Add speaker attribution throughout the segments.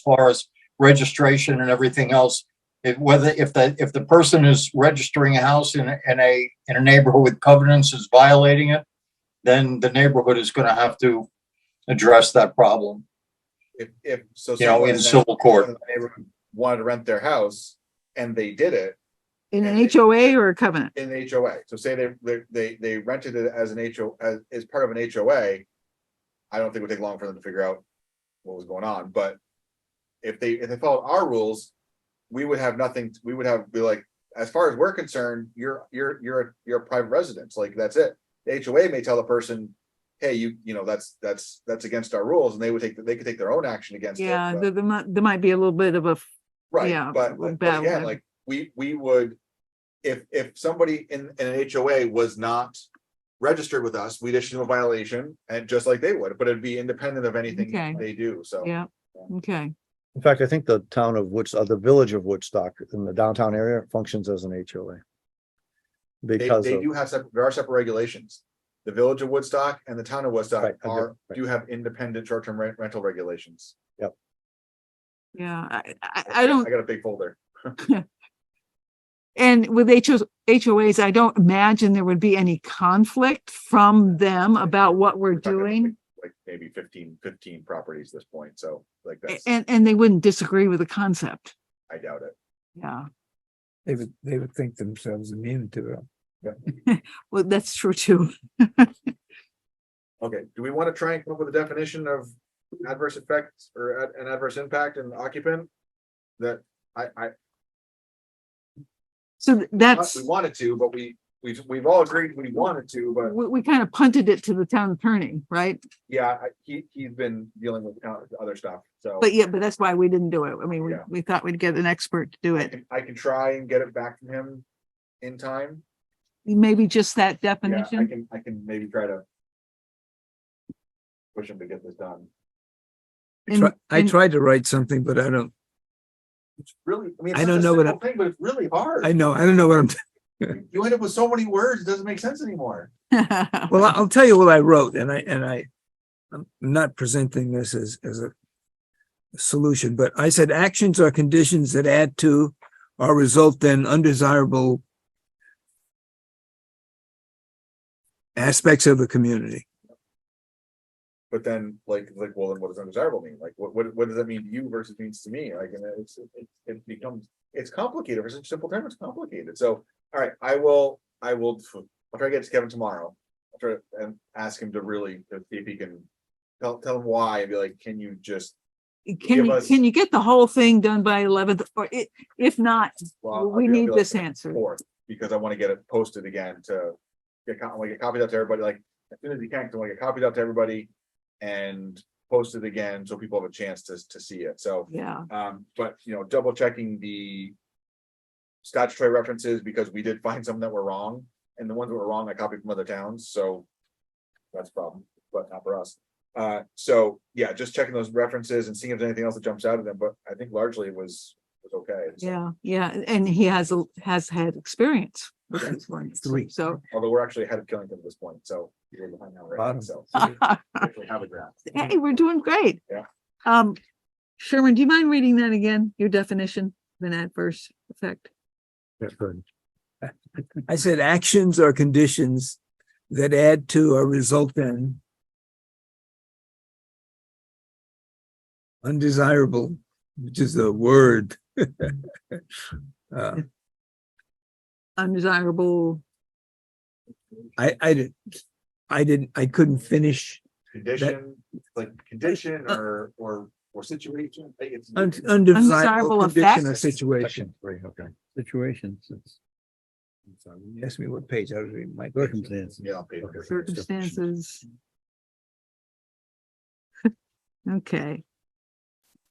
Speaker 1: far as registration and everything else. If whether, if the, if the person is registering a house in, a- in a, in a neighborhood with covenants is violating it, then the neighborhood is gonna have to address that problem,
Speaker 2: If, if, so.
Speaker 1: you know,
Speaker 2: someone
Speaker 1: in
Speaker 2: that-
Speaker 1: civil court.
Speaker 2: neighborhood Wanted to rent their house and they did it
Speaker 3: In an HOA or a covenant?
Speaker 2: in the HOA. So say they, they- they, they rented it as an HO, as, as part of an HOA. I don't think it would take long for them to figure out what was going on, but if they, if they followed our rules, we would have nothing, we would have, be like, as far as we're concerned, you're, you're, you're, you're a private residence, like, that's it. The HOA may tell the person, hey, you, you know, that's, that's, that's against our rules, and they would take, they could take their own action against it.
Speaker 3: Yeah,
Speaker 2: but-
Speaker 3: there, there might, there might be a little bit of a, f- Yeah,
Speaker 2: Right, but,
Speaker 3: we're
Speaker 2: but
Speaker 3: bad
Speaker 2: but again,
Speaker 3: with-
Speaker 2: like, we, we would, if, if somebody in, in an HOA was not registered with us, we'd issue them a violation, and just like they would, but it'd be independent of
Speaker 3: Okay.
Speaker 2: anything they do, so.
Speaker 3: yeah, okay.
Speaker 4: In fact, I think the town of Woods, uh, the village of Woodstock in the downtown area functions as an HOA.
Speaker 2: They,
Speaker 4: Because
Speaker 2: they
Speaker 4: of,
Speaker 2: do have, sep- there are separate regulations. The village of Woodstock and the town of Woodstock
Speaker 4: Right, I get-
Speaker 2: are,
Speaker 4: right.
Speaker 2: do have independent short-term rent, rental regulations.
Speaker 3: Yeah, I, I, I don't,
Speaker 2: I got a big folder.
Speaker 3: and with HOs, HOAs, I don't imagine there would be any conflict from them about what we're
Speaker 2: We're talking about, like,
Speaker 3: doing.
Speaker 2: Like, maybe 15 15 properties at this point, so, like,
Speaker 3: a-
Speaker 2: that's,
Speaker 3: And, and they wouldn't disagree with the concept.
Speaker 2: I doubt it.
Speaker 3: Yeah,
Speaker 5: They would, they would think themselves immune to it.
Speaker 3: well, that's true too.
Speaker 2: Okay, do we want to try and come up with a definition of adverse effects or ad- an adverse impact and occupant? That I, I,
Speaker 3: So th-
Speaker 2: thought
Speaker 3: that's,
Speaker 2: we wanted to, but we, we've, we've all agreed we wanted to, but
Speaker 3: we, we kind of punted it to the town attorney, right?
Speaker 5: Mm-hmm.
Speaker 2: yeah, I, he, he's been dealing with uh, other stuff, so.
Speaker 3: But yeah, but that's why we didn't do it. I mean, we,
Speaker 2: Yeah.
Speaker 3: we thought we'd get an expert to do
Speaker 2: I
Speaker 3: it.
Speaker 2: can- I can try and get it back from him in time.
Speaker 3: Maybe just that
Speaker 2: Yeah, I
Speaker 3: definition.
Speaker 2: can, I can maybe try to push him to get this done.
Speaker 5: I
Speaker 3: And-
Speaker 5: try- I
Speaker 3: and-
Speaker 5: tried to write something, but I don't,
Speaker 2: It's really, I mean.
Speaker 5: I don't know what I-
Speaker 2: am Thing, but it's really hard.
Speaker 5: I know, I don't know what I'm,
Speaker 2: You end up with so many words, it doesn't make sense anymore.
Speaker 5: well, I'll tell you what I wrote and I, and I. I'm not presenting this as, as a. Solution, but I said actions or conditions that add to or result in undesirable. Aspects of the community.
Speaker 2: But then, like, like, well, then what does undesirable mean? Like, what, what, what does that mean to you versus means to me? Like, and it's, it, it becomes, it's complicated. For such a simple term, it's complicated. So, all right, I will, I will, I'll try to get to Kevin tomorrow. I'll try to- and ask him to really, to see if he can tell, tell him why and be like, can you just?
Speaker 3: Can
Speaker 2: give
Speaker 3: you,
Speaker 2: us-
Speaker 3: can you get the whole thing done by eleventh or i- if not,
Speaker 2: well, I'll
Speaker 3: we
Speaker 2: be- I'll be
Speaker 3: need
Speaker 2: like,
Speaker 3: this answer.
Speaker 2: Fourth, because I want to get it posted again to get, co- I want to get copies out to everybody, like, as soon as you can, 'cause I want to get copies out to everybody. And posted again, so people have a chance to, to see it. So.
Speaker 3: Yeah,
Speaker 2: Um, but you know, double checking the. Statutory references because we did find some that were wrong and the ones that were wrong I copied from other towns, so. That's a problem, but not for us. Uh, so yeah, just checking those references and seeing if there's anything else that jumps out of them, but I think largely it was, was okay. so,
Speaker 3: yeah, yeah. And he has, a has had experience. with
Speaker 2: Okay.
Speaker 3: these ones,
Speaker 5: Three.
Speaker 3: So,
Speaker 2: Although we're actually ahead of Killington at this point, so. we're behind now, right?
Speaker 5: Bottom.
Speaker 2: So,
Speaker 3: hey,
Speaker 2: we actually Have a graph.
Speaker 3: we're doing great.
Speaker 2: Yeah.
Speaker 3: Um, Sherman, do you mind reading that again? Your definition of an adverse effect?
Speaker 5: I said actions or conditions that add to or result in. Undesirable, which is a word. Uh,
Speaker 3: Undesirable,
Speaker 5: I, I didn't, I didn't, I couldn't finish
Speaker 2: Condition, like condition or, or, or situation. I think it's-
Speaker 5: un-
Speaker 3: Undesirable
Speaker 5: undesirable condition or
Speaker 3: effects?
Speaker 5: situation.
Speaker 4: section three, okay, situations, it's
Speaker 5: You Asked me what page, I was reading my. page.
Speaker 4: circumstances.
Speaker 2: Yeah. I'll pay for it.
Speaker 3: circumstances. Okay.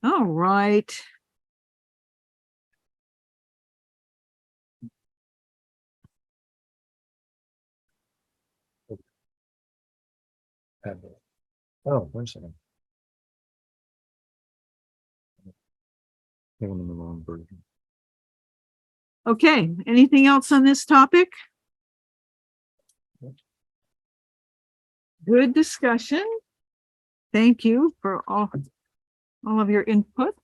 Speaker 3: All right.
Speaker 4: Oh, one second. I'm on the wrong version.
Speaker 3: Okay, anything else on this topic? Good discussion. Thank you for all, all of your input.